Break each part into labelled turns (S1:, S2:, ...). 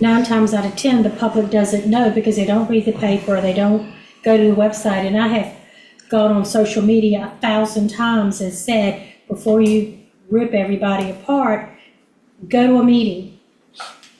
S1: nine times out of ten, the public doesn't know because they don't read the paper, they don't go to the website. And I have gone on social media a thousand times and said, before you rip everybody apart, go to a meeting,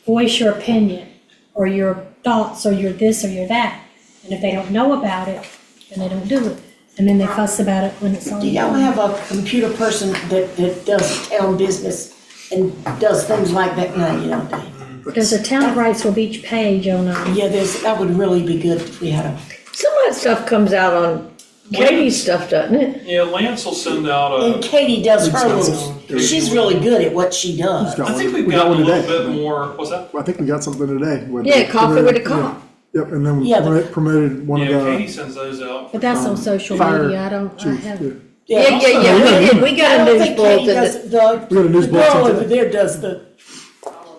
S1: voice your opinion, or your thoughts, or your this, or your that. And if they don't know about it, then they don't do it. And then they fuss about it when it's on.
S2: Do y'all have a computer person that, that does town business and does things like that? No, you don't, do you?
S1: There's a town rights with each page on, um,
S2: Yeah, there's, that would really be good if we had a,
S3: Some of that stuff comes out on Katie's stuff, doesn't it?
S4: Yeah, Lance will send out
S2: and
S4: a,
S2: Katie does her little, she's really good at what she does.
S4: I think we've
S5: We got
S4: gotten a
S5: one
S4: little
S5: today.
S4: bit more, what's that?
S5: I think we got something today. with
S3: Yeah,
S5: the-
S3: coffee with a
S5: yeah.
S3: cop.
S5: Yep, and then we
S2: Yeah, but-
S5: promote- promoted one of
S4: Yeah, Katie
S5: the
S4: sends those out.
S1: but that's on social
S5: Um, fire
S1: media, I don't, I
S5: chiefs.
S1: have.
S5: yeah.
S3: Yeah, yeah, yeah, we did- we
S2: I
S3: got a
S2: don't
S3: news
S2: think Katie
S3: bulletin
S2: does,
S3: that,
S2: the,
S5: We got a news
S2: the girl
S5: bulletin
S2: over
S5: today.
S2: there does the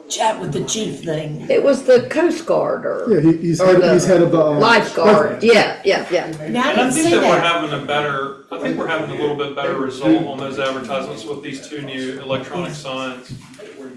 S2: chat with the chief thing.
S3: it was the Coast Guard
S5: Yeah,
S3: or
S5: he, he's
S3: Or
S5: head,
S3: the
S5: he's head of the. uh,
S3: lifeguard, yeah, yeah, yeah.
S2: Now, I
S4: And I
S2: didn't
S4: think
S2: see
S4: that we're
S2: that.
S4: having a better, I think we're having a little bit better result on those advertisements with these two new electronic signs.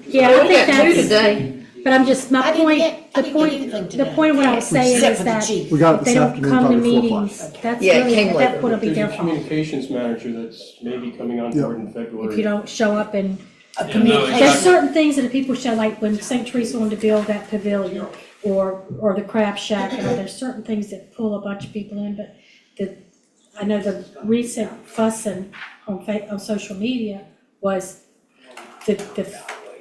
S1: Yeah, I
S3: We
S1: think
S3: got two
S1: that's,
S3: today,
S1: but I'm just,
S2: I
S1: my
S2: didn't
S1: point,
S2: get- I
S1: the
S2: didn't get anything
S1: point, the
S2: today.
S1: point what I was saying
S2: Except
S1: is
S2: for the
S1: that
S2: chief.
S5: We got it
S1: if they
S5: this
S1: don't
S5: afternoon,
S1: come to
S5: probably four o'clock.
S1: meetings, that's
S3: Yeah, it came
S1: really, at
S3: later.
S1: that point, it'll be
S6: There's
S1: their
S6: a
S1: fault.
S6: communications manager that's maybe coming on
S5: Yeah.
S6: board in
S1: If you
S6: February.
S1: don't show up and
S2: A
S4: no,
S2: communication-
S1: There's
S4: Exactly.
S1: certain things that the people show, like when St. Teresa wanted to build that pavilion or, or the crab shack, you know, there's certain things that pull a bunch of people in, but the, I know the recent fussing on fa, on social media was the, the,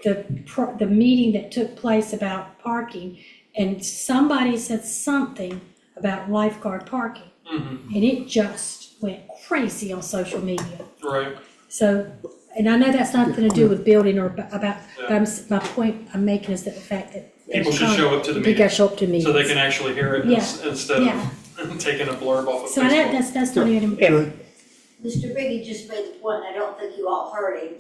S1: the, pro- the meeting that took place about parking, and somebody said something about lifeguard parking,
S4: Mhm,
S1: and it just went crazy on social media.
S4: Right,
S1: So, and I know that's nothing to do with building or ab- about, but I'm, s- my point I'm making is that the fact that.
S4: people should show up to the
S1: You
S4: meeting,
S1: gotta show up to
S4: so they
S1: meetings.
S4: can actually hear it
S1: Yeah.
S4: ins- instead
S1: Yeah.
S4: of taking a blurb off
S1: So
S4: of
S1: that,
S4: Facebook.
S1: that's, that's not even,
S3: Yeah.
S7: Mr. Biggie just made the point, and I don't think you all heard him.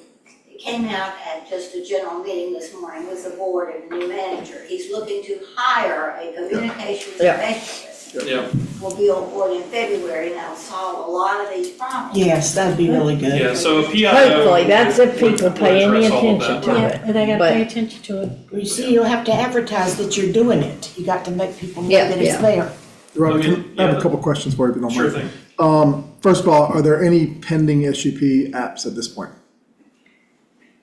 S7: It came out at just a general meeting this morning with the board and the new manager. He's looking to hire a communications
S3: Yeah.
S7: specialist.
S4: Yeah,
S7: Will be on board in February, and that'll solve a lot of these problems.
S2: Yes, that'd be really good.
S4: yeah, so a PIO.
S3: Hopefully, that's if
S4: would-
S3: people
S4: would
S3: pay any
S4: address all of
S3: attention
S4: that.
S3: to it.
S1: yeah, they gotta
S3: But-
S1: pay attention to it.
S2: Well, You see, you'll have to advertise that you're doing it. You got to make people know
S3: Yeah,
S2: that it's
S3: yeah.
S2: there.
S5: Robert,
S4: Okay,
S5: can- I have
S4: yeah.
S5: a couple questions for you, if you don't
S4: Sure
S5: mind. Um,
S4: thing.
S5: First of all, are there any pending SUP apps at this point?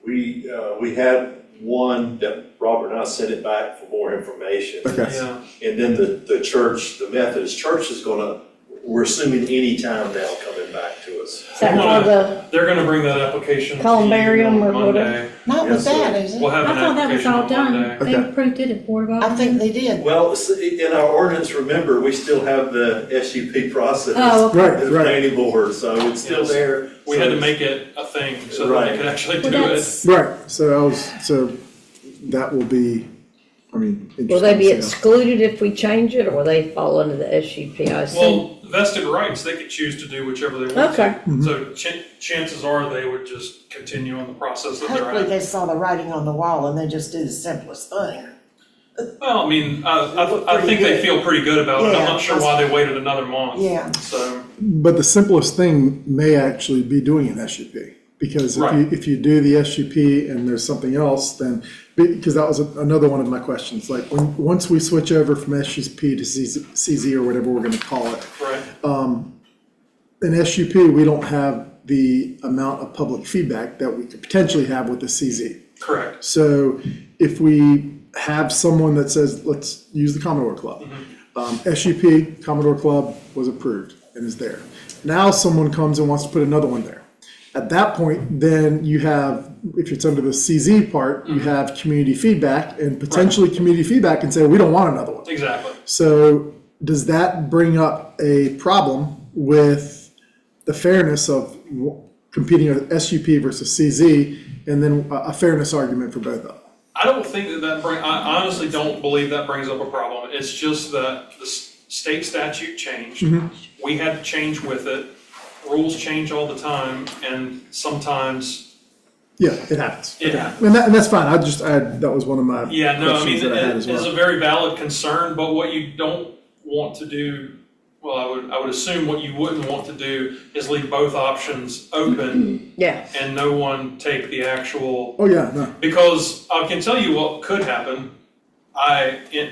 S8: We, uh, we had one that Robert and I sent it back for more information.
S5: Okay.
S4: Yeah,
S8: And then the, the church, the Methodist church is gonna, we're assuming any time now coming back to us.
S3: Is that called the,
S4: they're gonna bring that application to you
S3: Columbarium or
S4: on
S3: whatever.
S4: Monday.
S2: Not with
S8: Yes, sir.
S2: that, is
S4: We'll
S2: it?
S4: have
S1: I
S4: an
S1: thought that was
S4: application
S1: all
S4: on Monday.
S1: done. They
S5: Okay.
S1: approved it at Board of
S2: I think
S1: Alderman.
S2: they did.
S8: Well, s- in our ordinance, remember, we still have the SUP process.
S1: Oh, okay.
S5: Right,
S8: The
S5: right,
S8: planning board, so it's still
S4: Yes.
S8: there.
S4: We
S8: so
S4: had to
S8: it's-
S4: make it a thing so that they
S8: Right.
S4: could actually do
S1: Well,
S4: it.
S1: that's,
S5: right. So I was, so that will be, I mean, interesting.
S3: will they be
S5: to see
S3: excluded if we change it or will they fall under the SUP? I assume.
S4: Well, vested rights, they could choose to do whichever they want. to.
S3: Okay.
S4: So
S8: Mm-hmm.
S4: chan- chances are they would just continue on the process that they're
S2: Hopefully
S4: at.
S2: they saw the writing on the wall and they just did the simplest thing.
S4: Well, I mean, I,
S2: looked
S4: I, I think
S2: pretty
S4: they
S2: good.
S4: feel pretty good about it. I'm
S2: Yeah,
S4: not sure why they waited another month.
S2: Yeah.
S4: So,
S5: how- But the simplest thing may actually be doing an SUP. Because if you,
S4: Right.
S5: if you do the SUP and there's something else, then, because that was another one of my questions. Like, when, once we switch over from SUP to CZ CZ or whatever we're gonna call it,
S4: right,
S5: in SUP, we don't have the amount of public feedback that we could potentially have with the CZ.
S4: correct.
S5: So if we have someone that says, let's use the Commodore Club. Um, SUP, Commodore Club was approved and is there. Now someone comes and wants to put another one there. At that point, then you have, if it's under the CZ part, you have community feedback and potentially community feedback can say, we don't want another one.
S4: Exactly.
S5: So does that bring up a problem with the fairness of w- competing with SUP versus CZ and then a a fairness argument for both of them?
S4: I don't think that that bring, I honestly don't believe that brings up a problem. It's just that the s- state statute changed.
S8: Mm-hmm.
S4: We had to change with it. Rules change all the time and sometimes,
S5: Yeah, it happens.
S4: It
S5: Okay.
S4: happens.
S5: And that, and that's fine. I just, I, that was one of my
S4: yeah, no, I
S5: questions
S4: mean,
S5: that I had
S4: it
S5: as
S4: is a
S5: well.
S4: very valid concern, but what you don't want to do, well, I would, I would assume what you wouldn't want to do is leave both options open
S3: Yeah,
S4: and no one take the actual
S5: Oh, yeah, no,
S4: Because I can tell you what could happen. I, in-